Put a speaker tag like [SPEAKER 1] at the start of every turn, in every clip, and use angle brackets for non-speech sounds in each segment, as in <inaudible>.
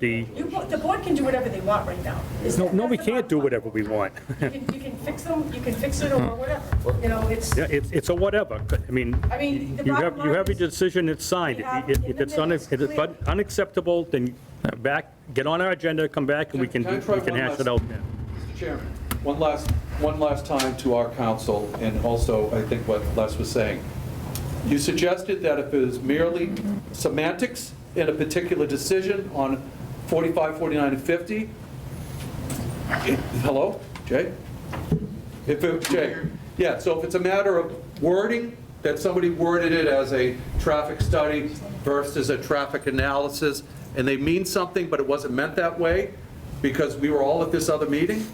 [SPEAKER 1] the,
[SPEAKER 2] You, the board can do whatever they want right now. Is
[SPEAKER 1] no,
[SPEAKER 2] that-
[SPEAKER 1] no, we
[SPEAKER 2] that's the
[SPEAKER 1] can't do
[SPEAKER 2] bottom
[SPEAKER 1] whatever we want. <laughs>
[SPEAKER 2] line. You can, you can fix them, you can fix it or whatever, you know, it's,
[SPEAKER 1] Yeah, It's, it's a whatever, I mean,
[SPEAKER 2] I mean, the
[SPEAKER 1] you
[SPEAKER 2] bottom
[SPEAKER 1] have, you
[SPEAKER 2] line
[SPEAKER 1] have a
[SPEAKER 2] is-
[SPEAKER 1] decision, it's signed.
[SPEAKER 2] We have
[SPEAKER 1] If
[SPEAKER 2] in
[SPEAKER 1] if
[SPEAKER 2] the
[SPEAKER 1] it's un-
[SPEAKER 2] minutes,
[SPEAKER 1] if it's
[SPEAKER 2] clear.
[SPEAKER 1] unacceptable, then back, get on our agenda, come back, and we can,
[SPEAKER 3] Can I
[SPEAKER 1] do-
[SPEAKER 3] try
[SPEAKER 1] we can
[SPEAKER 3] one
[SPEAKER 1] hash
[SPEAKER 3] last-
[SPEAKER 1] it out then.
[SPEAKER 3] Mr. Chairman, one last, one last time to our council, and also, I think what Les was saying. You suggested that if it was merely semantics in a particular decision on 45, 49, and 50, it- hello, Jay? If it, Jay, yeah, so if it's a matter of wording, that somebody worded it as a traffic study versus a traffic analysis, and they mean something, but it wasn't meant that way, because we were all at this other meeting,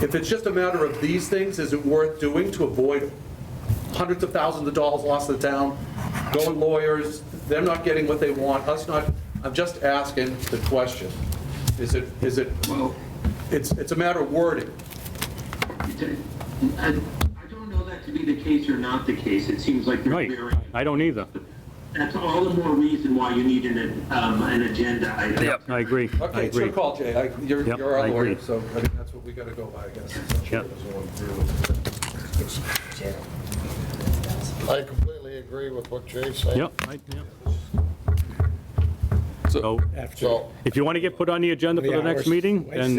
[SPEAKER 3] if it's just a matter of these things, is it worth doing to avoid hundreds of thousands of dollars lost to the town, going lawyers, them not getting what they want, us not, I'm just asking the question. Is it, is it,
[SPEAKER 4] Well,
[SPEAKER 3] it's, it's a matter of wording.
[SPEAKER 4] it- it- I I don't know that to be the case or not the case. It seems like they're
[SPEAKER 1] Right,
[SPEAKER 4] very,
[SPEAKER 1] I don't either.
[SPEAKER 4] that's all the more reason why you need an, um, an agenda item.
[SPEAKER 1] I agree, I
[SPEAKER 3] Okay, it's your
[SPEAKER 1] agree.
[SPEAKER 3] call, Jay. I- You're
[SPEAKER 1] Yep,
[SPEAKER 3] you're
[SPEAKER 1] I
[SPEAKER 3] our lawyer,
[SPEAKER 1] agree.
[SPEAKER 3] so I think that's what we got to go by, I guess.
[SPEAKER 1] Yep.
[SPEAKER 5] I completely agree with what Jay's saying.
[SPEAKER 1] Yep. I- yep.
[SPEAKER 3] So,
[SPEAKER 1] So
[SPEAKER 5] So,
[SPEAKER 1] if you want to get put on the agenda for the next meeting, then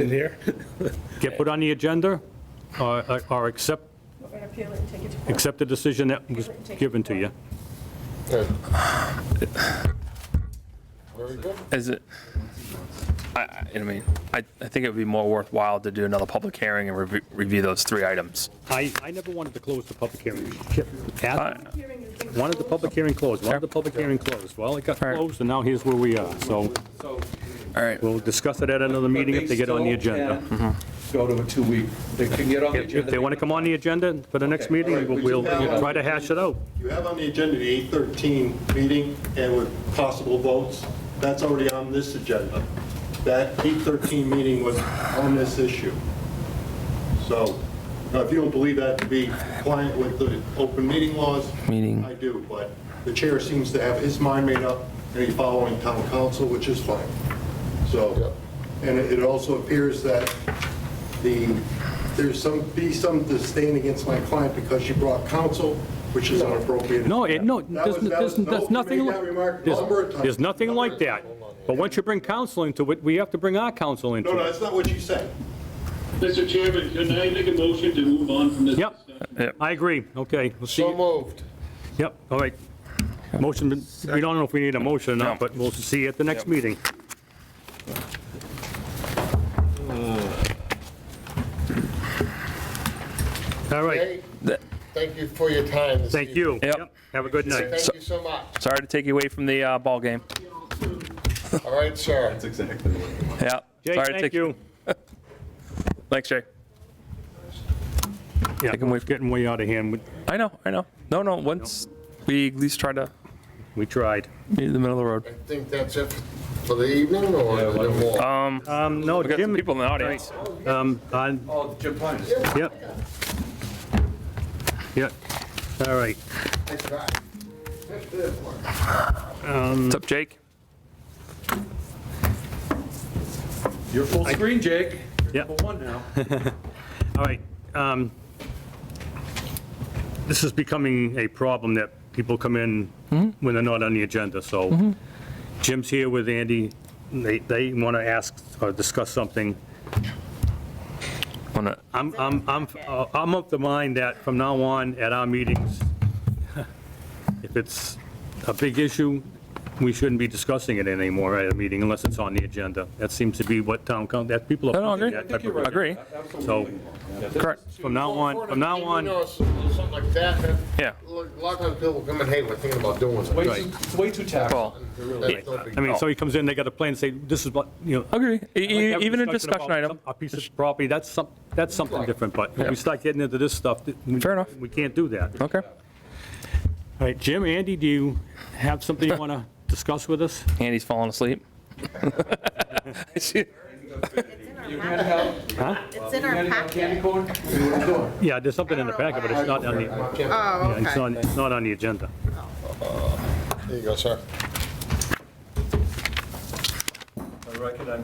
[SPEAKER 1] get put on the agenda or or accept,
[SPEAKER 2] we're going to appeal it and take it to court.
[SPEAKER 1] accept the decision that was given to you.
[SPEAKER 5] good. Very good.
[SPEAKER 6] Is it, I- I, I mean, I, I think it would be more worthwhile to do another public hearing and review, review those three items.
[SPEAKER 1] I, I never wanted to close the public hearing.
[SPEAKER 6] I-
[SPEAKER 1] Ask-
[SPEAKER 2] Hearing is being
[SPEAKER 1] Wanted the public hearing closed, wanted the public hearing closed. Well, it got closed, and now here's where we are. So
[SPEAKER 3] so
[SPEAKER 6] All right,
[SPEAKER 1] we'll discuss it at another meeting if they get on the agenda. Mm-hmm.
[SPEAKER 3] They still can Go to a two-week, they can get on the
[SPEAKER 1] If
[SPEAKER 3] agenda.
[SPEAKER 1] if they want to come on the agenda for the next
[SPEAKER 3] Okay, all
[SPEAKER 1] meeting,
[SPEAKER 3] right,
[SPEAKER 1] we'll
[SPEAKER 3] we just
[SPEAKER 1] we'll
[SPEAKER 3] have-
[SPEAKER 1] try to hash it out.
[SPEAKER 7] You have on the agenda the 8:13 meeting and with possible votes, that's already on this agenda. That 8:13 meeting was on this issue. So now, if you don't believe that to be compliant with the open meeting laws,
[SPEAKER 6] Meeting.
[SPEAKER 7] I do, but the chair seems to have his mind made up and he's following town council, which is fine. So, and it it also appears that the, there's some, be some disdain against my client because she brought counsel, which is inappropriate.
[SPEAKER 1] No, it, no,
[SPEAKER 7] That was-
[SPEAKER 1] there's,
[SPEAKER 7] that was-
[SPEAKER 1] there's
[SPEAKER 7] no,
[SPEAKER 1] there's
[SPEAKER 7] you
[SPEAKER 1] nothing,
[SPEAKER 7] made that remark
[SPEAKER 1] there's,
[SPEAKER 7] number of times.
[SPEAKER 1] there's nothing like that. But once you bring counsel into it, we have to bring our counsel into
[SPEAKER 7] No, no,
[SPEAKER 1] it.
[SPEAKER 7] that's not what you said.
[SPEAKER 8] Mr. Chairman, can I make a motion to move on from this
[SPEAKER 1] Yep.
[SPEAKER 8] discussion?
[SPEAKER 1] I agree, okay, we'll see.
[SPEAKER 5] So moved.
[SPEAKER 1] Yep, all right. Motion, we don't know if we need a motion or not, but we'll see at the next meeting. All right,
[SPEAKER 5] Jay, thank you for your time this
[SPEAKER 1] thank you.
[SPEAKER 5] evening.
[SPEAKER 1] Yep. Have a good night.
[SPEAKER 5] Thank you so much.
[SPEAKER 6] sorry to take you away from the, uh, ball game.
[SPEAKER 5] All right, sir.
[SPEAKER 6] Yeah.
[SPEAKER 1] Jay,
[SPEAKER 6] sorry to
[SPEAKER 1] thank
[SPEAKER 6] take-
[SPEAKER 1] you.
[SPEAKER 6] Thanks, Jay.
[SPEAKER 1] Yeah,
[SPEAKER 6] can wait.
[SPEAKER 1] it's getting way out of hand, We-
[SPEAKER 6] I know, I know. No, no, once we at least try to
[SPEAKER 1] we tried.
[SPEAKER 6] meet in the middle of the road.
[SPEAKER 5] I think that's it for the evening or is there more?
[SPEAKER 6] Um,
[SPEAKER 1] Um, no,
[SPEAKER 6] we got some
[SPEAKER 1] Jim,
[SPEAKER 6] people in the audience.
[SPEAKER 1] um, on,
[SPEAKER 3] Oh, Jim Pines.
[SPEAKER 1] Yep. Yep, all right.
[SPEAKER 5] I tried.
[SPEAKER 6] What's up, Jake?
[SPEAKER 3] You're full screen, Jake.
[SPEAKER 1] Yep.
[SPEAKER 3] For one
[SPEAKER 1] <laughs>
[SPEAKER 3] now.
[SPEAKER 1] All right. um, This is becoming a problem that people come in
[SPEAKER 6] Mm-hmm.
[SPEAKER 1] when they're not on the agenda, so Jim's here with Andy. They, they want to ask or discuss something.
[SPEAKER 6] Wanna-
[SPEAKER 1] I'm, I'm, I'm, uh, I'm of the mind that from now on, at our meetings, <laughs> if it's a big issue, we shouldn't be discussing it anymore at a meeting unless it's on the agenda. That seems to be what town council, that people are.
[SPEAKER 6] No, no, agree.
[SPEAKER 1] pushing that type
[SPEAKER 6] I
[SPEAKER 1] of-
[SPEAKER 6] Agree.
[SPEAKER 1] So,
[SPEAKER 6] Correct.
[SPEAKER 1] from now on, from now on.
[SPEAKER 5] You know, something like that, that-
[SPEAKER 6] Yeah.
[SPEAKER 5] A lot of times people come in, hey, we're thinking about doing
[SPEAKER 3] Way
[SPEAKER 5] something.
[SPEAKER 3] too- It's way too tactful.
[SPEAKER 6] Well,
[SPEAKER 5] They're really- that's no big
[SPEAKER 1] I mean,
[SPEAKER 5] deal.
[SPEAKER 1] so he comes in, they got a plan, say, this is what, you know.
[SPEAKER 6] Agree. E-
[SPEAKER 1] like
[SPEAKER 6] e-
[SPEAKER 1] every
[SPEAKER 6] Even a
[SPEAKER 1] about
[SPEAKER 6] discussion item.
[SPEAKER 1] some- A piece of property, that's some, that's something different, but when we start getting into this stuff, th- we-
[SPEAKER 6] Fair enough.
[SPEAKER 1] We can't do that. All
[SPEAKER 6] Okay.
[SPEAKER 1] right, Jim, Andy, do you have something you want to discuss with us?
[SPEAKER 6] Andy's falling asleep. <laughs>
[SPEAKER 3] You're gonna have,
[SPEAKER 9] It's in
[SPEAKER 3] you're
[SPEAKER 9] our
[SPEAKER 3] gonna have candy
[SPEAKER 9] packet.
[SPEAKER 3] corn? What are you doing?
[SPEAKER 1] Yeah, there's something in the packet, but it's not on the, yeah,
[SPEAKER 9] Oh,
[SPEAKER 1] it's
[SPEAKER 9] okay.
[SPEAKER 1] on, it's not on the agenda.
[SPEAKER 5] There you go, sir.
[SPEAKER 7] All
[SPEAKER 3] record, I'm